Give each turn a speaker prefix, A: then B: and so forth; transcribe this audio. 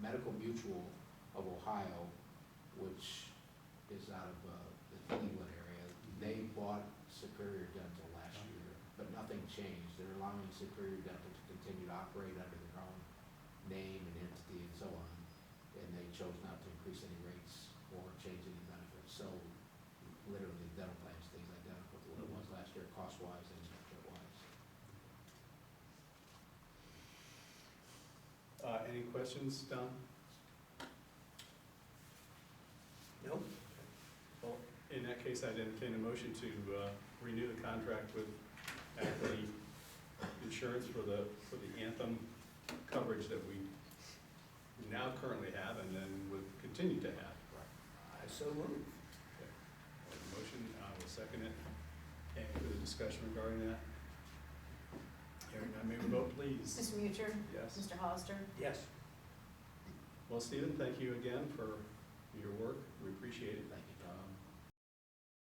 A: Medical Mutual of Ohio, which is out of uh, the Cleveland area, they bought Superior Dental last year, but nothing changed. They're allowing Superior Dental to continue to operate under their own name and entity and so on, and they chose not to increase any rates or change any benefits. So literally, the dental plan stays identical to what it was last year, cost-wise and benefit-wise.
B: Uh, any questions, Don?
C: Nope.
B: Well, in that case, I'd entertain a motion to, uh, renew the contract with Ackley Insurance for the, for the Anthem coverage that we now currently have and then would continue to have.
C: I so move.
B: A Motion, I will second it. Any further discussion regarding that? Hearing none, may we vote please?
D: Mr. Mutcher,
B: Yes.
D: Mr. Hollister,
C: Yes.
B: Well, Stephen, thank you again for your work. We appreciate it. Um,
A: Thank